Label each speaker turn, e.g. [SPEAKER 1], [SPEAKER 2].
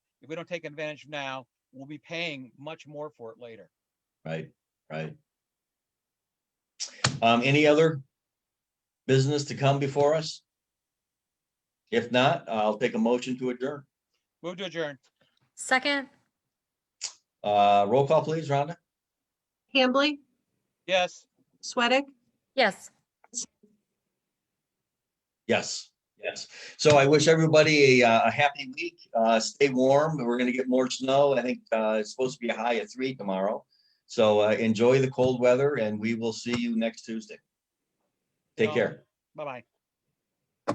[SPEAKER 1] we don't take advantage now, we'll be paying much more for it later.
[SPEAKER 2] Right, right. Um, any other business to come before us? If not, I'll take a motion to adjourn.
[SPEAKER 1] Move to adjourn.
[SPEAKER 3] Second,
[SPEAKER 2] Uh, roll call, please, Rhonda.
[SPEAKER 4] Hambley,
[SPEAKER 1] Yes.
[SPEAKER 4] Sweattick,
[SPEAKER 3] yes.
[SPEAKER 2] Yes, yes. So I wish everybody a, uh, a happy week. Uh, stay warm. We're gonna get more snow. I think, uh, it's supposed to be a high of three tomorrow. So, uh, enjoy the cold weather and we will see you next Tuesday. Take
[SPEAKER 1] Um,
[SPEAKER 2] care.
[SPEAKER 1] Bye-bye.